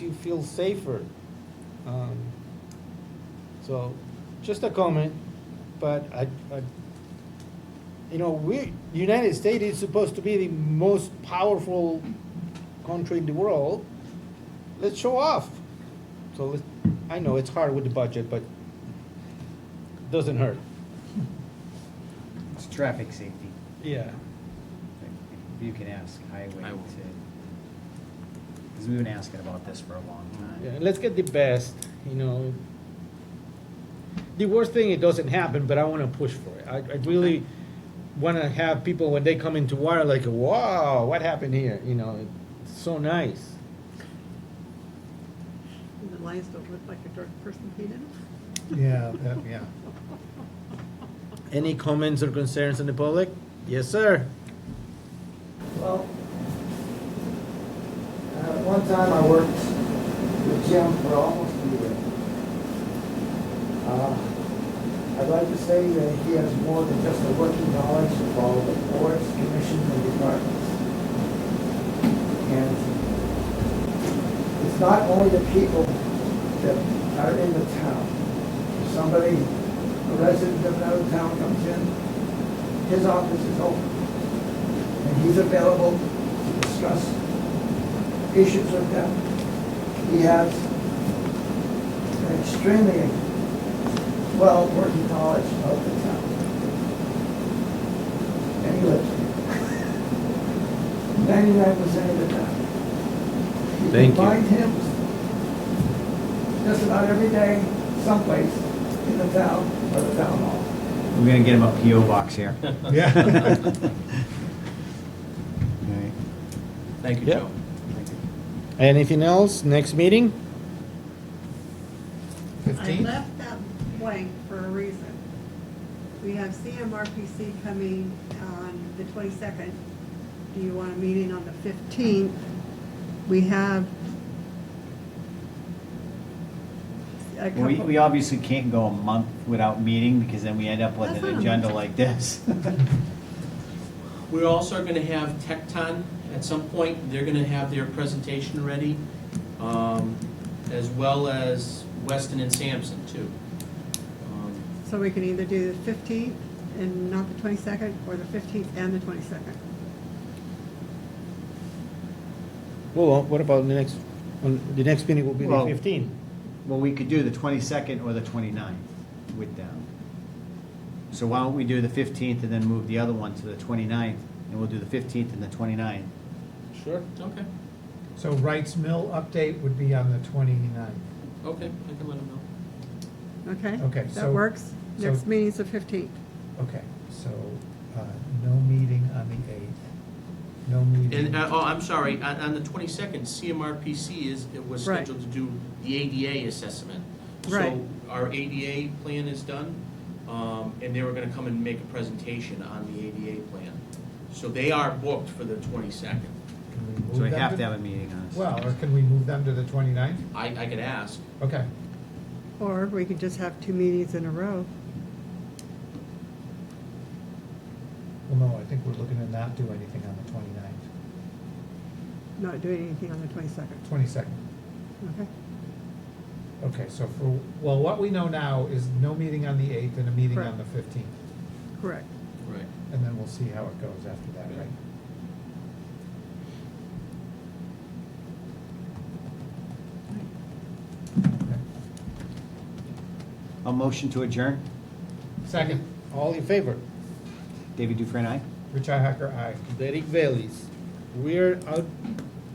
feel safer. Um, So, just a comment, but I, I, you know, we, United States is supposed to be the most powerful country in the world. Let's show off. So let, I know it's hard with the budget, but doesn't hurt. It's traffic safety. Yeah. If You can ask highway I to, will. because we've been asking about this for a long Yeah, time. let's get the best, you know. The worst thing, it doesn't happen, but I wanna push for it. I, I really wanna have people, when they come into water, like, wow, what happened here, you know, it's so nice. And the lines don't look like a dark person painted them. Yeah, that- yeah. Any comments or concerns in the public? Yes, sir. Well, at one time I worked with Jim for almost a year. Uh, I'd like to say that he has more than just a working knowledge of all the boards, commissions, and departments. And it's not only the people that are in the town. If somebody, a resident of another town comes in, his office is open and he's available to discuss issues with them. He has an extremely well working knowledge of the town. And he lives here. Ninety-nine percent of the time. Thank you. can find him just about every day someplace in the town or the town hall. We're gonna get him a PO box here. Yeah. Alright. Thank you, Yeah. Joe. Anything else, next meeting? I Fifteen? left that blank for a reason. We have CMRPC coming on the twenty-second. Do you want a meeting on the fifteenth? We have a Well, We, couple. we obviously can't go a month without meeting, because then we end up with That's an not a agenda month. like this. We're also gonna have Tecton at some point, they're gonna have their presentation ready, um, as well as Weston and Sampson too. Um, So we can either do the fifteenth and not the twenty-second, or the fifteenth and the twenty-second. Well, uh, what about the next, on, the next meeting will be the Well- fifteen? Well, we could do the twenty-second or the 29th with them. So why don't we do the fifteenth and then move the other one to the 29th, and we'll do the fifteenth and the 29th. Sure. Okay, So Wright's Mill update would be on the 29th. okay, I can let them know. Okay? Okay, That so- works. so- Next meeting's the fifteenth. Okay, so, uh, no meeting on the eighth, no meeting. And, uh, oh, I'm sorry, on, on the twenty-second, CMRPC is, it was Right. scheduled to do the ADA assessment. Right. So our ADA plan is done, um, and they were gonna come and make a presentation on the ADA plan. So they are booked for the twenty-second. Can we move So we them have to have a meeting on it. Well, or can we move them to the 29th? I, I could ask. Okay, Or we could just have two meetings in a row. well, no, I think we're looking to not do anything on the 29th. not doing anything on the twenty-second, 22nd. okay? Okay, so for, well, what we know now is no meeting on the eighth and a meeting on Correct. the fifteenth, Correct. Right. and then we'll see how it goes after that, right? Okay. A motion to adjourn, Second, All in favor? David Dufresne, aye? Richi Hacker, aye. Derek Bailey's. We're out,